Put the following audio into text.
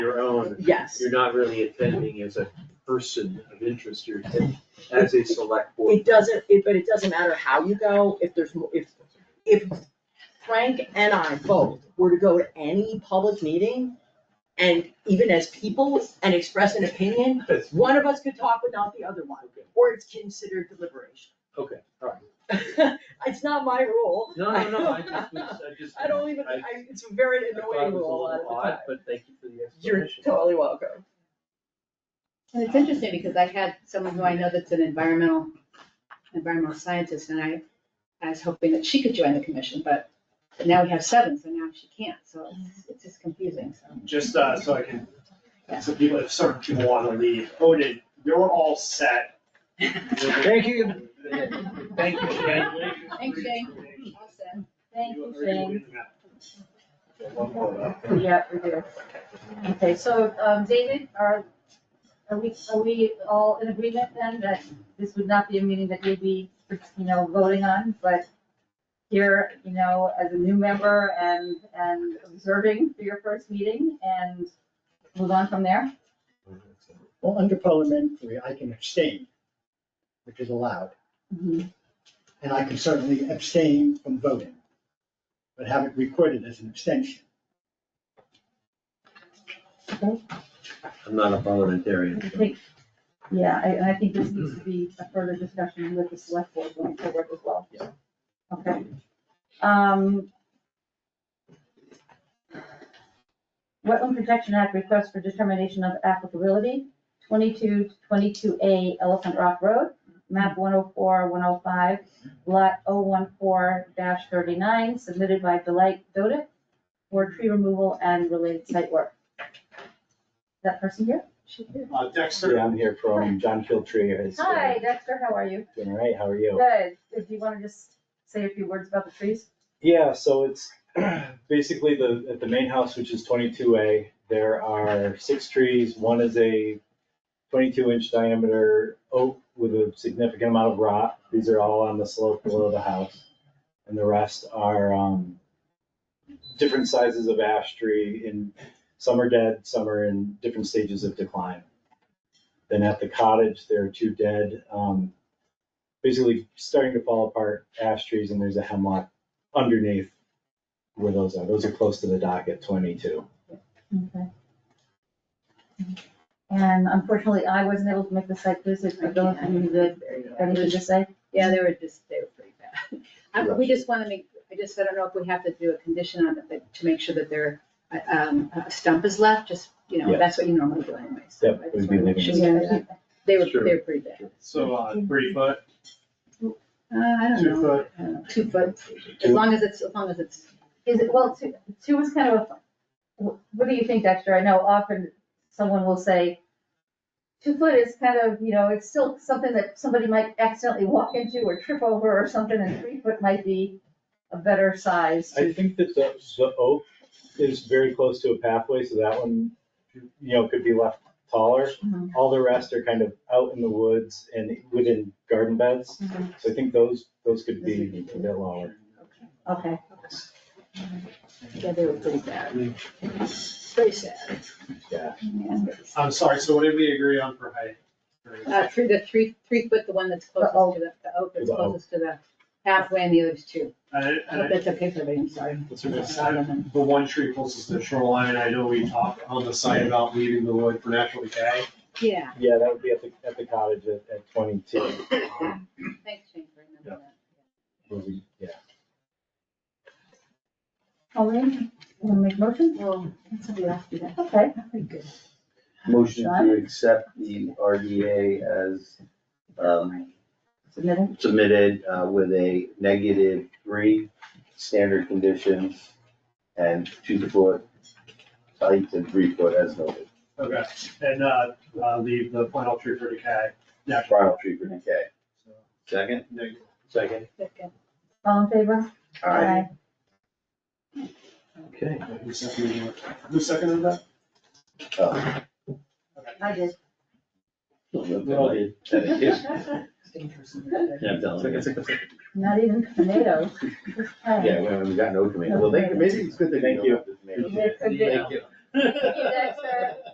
so Yes, you're not really attending as a person of interest, you're attending as a select board. it doesn't, it, but it doesn't matter how you go, if there's, mo- if, if Frank and I both were to go to any public meeting, and even as people, and express an opinion, That's- one of us could talk but not the other one, Okay, or it's considered deliberation. Okay, all right. It's not my rule. No, no, no, I just, was- I just. I don't even, I, I- it's a very I thought it annoying was a rule a lot of little the time. odd, But thank you for the You're explanation. totally welcome. And it's interesting because I had someone who I know that's an environmental, environmental scientist, and I, I was hoping that she could join the commission, but now we have seven, so now she can't, so it's, it's just confusing, so. just uh, so I can, so people, if certain people want to leave, Odin, you're all set. Thank you. Thank you, Shane. Thanks, Shane. Awesome, One more. uh, Yeah, we do. Okay, so, um, David, are, are we, are we all in agreement then that this would not be a meeting that you'd be, you know, voting on, but here, you know, as a new member and, and observing for your first meeting and move on from there? Well, under parliamentary, I can abstain, which is allowed, and I can certainly abstain from voting, but have it recorded as an abstention. I'm not a parliamentarian. I think- Yeah, I, and I think this needs to be a further discussion with the select board going forward as well. Okay. Um. Wetland Protection Act request for determination of applicability, 22 22 A Elephant Rock Road, map 104, 105, lot 014 thirty-nine, submitted by Delight Dodick for tree removal and related site work. That person here? She here. Uh, Dexter, Yeah, I'm here from John Kiltree, has Hi, Dexter, how are you? been uh, right, how are you? Good. Did you want to just say a few words about the trees? Yeah, so it's basically the, at the main house, which is twenty-two A, there are six trees, one is a twenty-two inch diameter oak with a significant amount of rot, these are all on the slope below the house. And the rest are, um, different sizes of ash tree, and some are dead, some are in different stages of decline. Then at the cottage, there are two dead, um, basically starting to fall apart ash trees, and there's a hemlock underneath where those are. Those are close to the dock at twenty-two. Okay. And unfortunately, I wasn't able to make the site visit, I don't have any good, anything to say. Yeah, they were just, they were pretty bad. I, we just wanna make, I just, I don't know if we have to do a condition on it, but to make sure that there, uh, um, a stump is left, just, you know, Yeah. that's what you normally do anyway. so Yep, I just we'd be wanna make leaving sure it. we have that. They were, Sure. they were pretty bad. so uh, three foot, Mm-hmm. Uh, I don't two know, foot, I don't know, two foot, as long as it's, as long as it's, Is it, well, two, two is kind of a, what do you think, Dexter? I know often someone will say, two foot is kind of, you know, it's still something that somebody might accidentally walk into or trip over or something, and three foot might be a better size. I think that the, the oak is very close to a pathway, so that one, you know, could be left taller. Mhm. All the rest are kind of out in the woods and within garden beds, Mhm. so I think those, Mm-hmm. those could Those be a bit lower. Okay, yeah, they were pretty bad. Pretty sad. I'm sorry, so what did we agree on for height? Uh, three, the three, three foot, the one that's closest oak. to the, the oak that's The oak. closest to the halfway and the other's two. I, I hope that's okay for everybody, I'm sorry. That's what I said. The one tree closest to the shoreline, I know we talked on the site about leaving the wood for natural decay. Yeah, Yeah, that would be at the, at the cottage at, at twenty-two. thanks, Shane, for remembering that. Would be- Yeah. Colleen, you wanna make a motion? Well, somebody else do that, Okay, pretty good. Motion to accept the RDA as um, submitted. submitted uh, with a negative three standard conditions and two foot height and three foot as noted. Okay, and, uh, uh, leave the final tree for decay, natural. Final tree for decay. So, Second? negative. Second. Second. All in favor? Aye. Okay. Who seconded that? Who seconded that? Uh, Okay. I did. that is- Yeah, I'm telling you. Not even tomatoes. Yeah, we haven't gotten no tomato. Well, thank you, maybe it's good that you Thank don't have the tomato. It could be. Thank you. Thank you, Dexter.